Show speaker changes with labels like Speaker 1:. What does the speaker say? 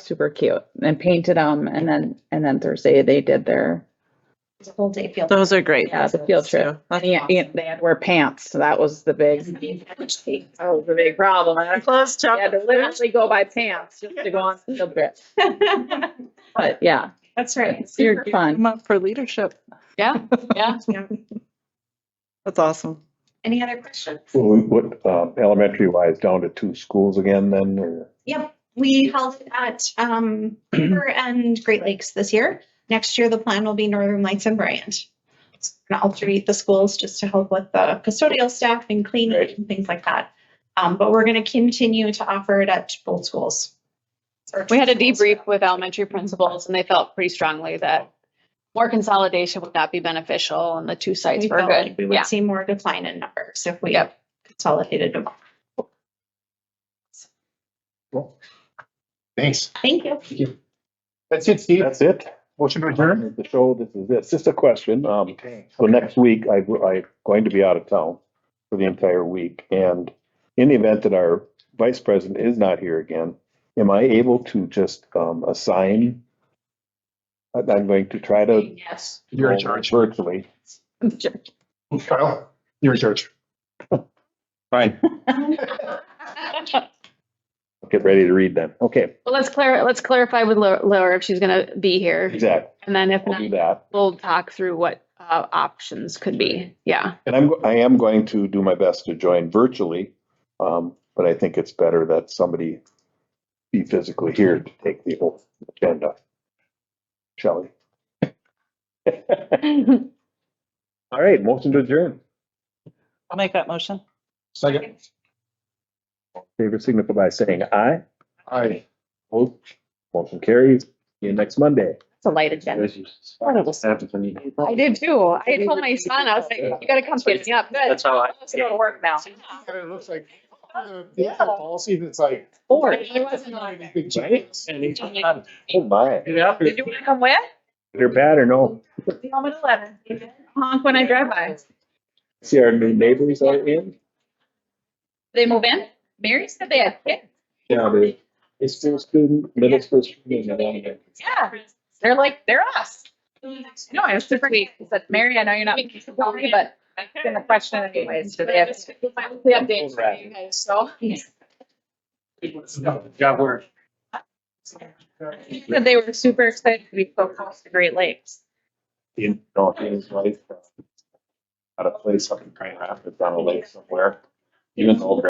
Speaker 1: super cute and painted them. And then, and then Thursday they did their,
Speaker 2: It's a whole day field.
Speaker 3: Those are great.
Speaker 1: yeah, the field trip.
Speaker 3: So,
Speaker 1: And
Speaker 3: that's
Speaker 1: he- he- they had to wear pants. So that was the big, that was the big problem. I had to-
Speaker 3: Close
Speaker 1: I had to literally go by pants just to go on the field trip. But yeah,
Speaker 2: That's right.
Speaker 1: it's super fun.
Speaker 3: Come up for leadership.
Speaker 2: Yeah, yeah.
Speaker 3: That's awesome.
Speaker 2: Any other questions?
Speaker 4: Well, we- What, um, elementary wise, down to two schools again then, or?
Speaker 2: Yep, we held it at um Beaver and Great Lakes this year. Next year, the plan will be Northern Lights and Bryant. It's gonna alternate the schools just to help with the custodial staff and cleaning
Speaker 4: Right.
Speaker 2: and things like that. Um, but we're gonna continue to offer it at both schools. Or
Speaker 5: We had a
Speaker 2: two schools.
Speaker 5: debrief with elementary principals and they felt pretty strongly that more consolidation would not be beneficial and the two sites
Speaker 2: We
Speaker 5: were
Speaker 2: felt
Speaker 5: good.
Speaker 2: like we
Speaker 5: Yeah.
Speaker 2: would see more decline in numbers if we
Speaker 5: Yep.
Speaker 2: consolidated them.
Speaker 6: Thanks.
Speaker 2: Thank you.
Speaker 6: That's it, Steve.
Speaker 4: That's it?
Speaker 6: Motion to adjourn.
Speaker 4: The show, this is it. It's just a question. Um,
Speaker 6: Okay.
Speaker 4: so next week, I, I'm going to be out of town for the entire week. And in the event that our vice president is not here again, am I able to just, um, assign? I- I'm going to try to.
Speaker 2: Yes.
Speaker 6: You're in charge.
Speaker 4: Virtually.
Speaker 6: Kyle, you're in charge.
Speaker 4: Fine. Get ready to read then. Okay,
Speaker 5: Well, let's clar, let's clarify with Lau- Laura if she's gonna be here.
Speaker 4: exactly.
Speaker 5: And then if
Speaker 4: I'll do
Speaker 5: not,
Speaker 4: that.
Speaker 5: we'll talk through what uh options could be. Yeah.
Speaker 4: And I'm, I am going to do my best to join virtually, um, but I think it's better that somebody be physically here to take the whole agenda. Shelley. All right, motion to adjourn.
Speaker 3: I'll make that motion.
Speaker 6: Second.
Speaker 4: Favor signify by saying aye.
Speaker 6: Aye.
Speaker 4: Opposed? Motion carries. See you next Monday.
Speaker 5: It's a light agenda.
Speaker 4: Oh,
Speaker 5: I did too. I had told my son, I was like, you gotta come get me up. Good.
Speaker 7: That's how I.
Speaker 5: Let's go to work now.
Speaker 6: And it looks like, uh, yeah, policy that's like.
Speaker 5: Or.
Speaker 6: Big changes.
Speaker 7: And he's not-
Speaker 4: Oh my.
Speaker 7: Get out there.
Speaker 1: Did you want to come with?
Speaker 4: You're bad or no?
Speaker 1: Home at eleven. Honk when I drive by.
Speaker 4: See our new neighbors are in?
Speaker 1: They move in? Mary said they had kids.
Speaker 4: Yeah, they, they still student, middle school student.
Speaker 1: Yeah, they're like, they're us. No, I was super sweet. I said, Mary, I know you're not meant to tell me, but I'm gonna question it anyways. Do they have? The updates for you guys, so.
Speaker 7: Job work.
Speaker 1: She Said they were super excited to be so close to Great Lakes.
Speaker 4: in, uh, no, he was like, at a place up in Grand Rapids on a lake somewhere. Even though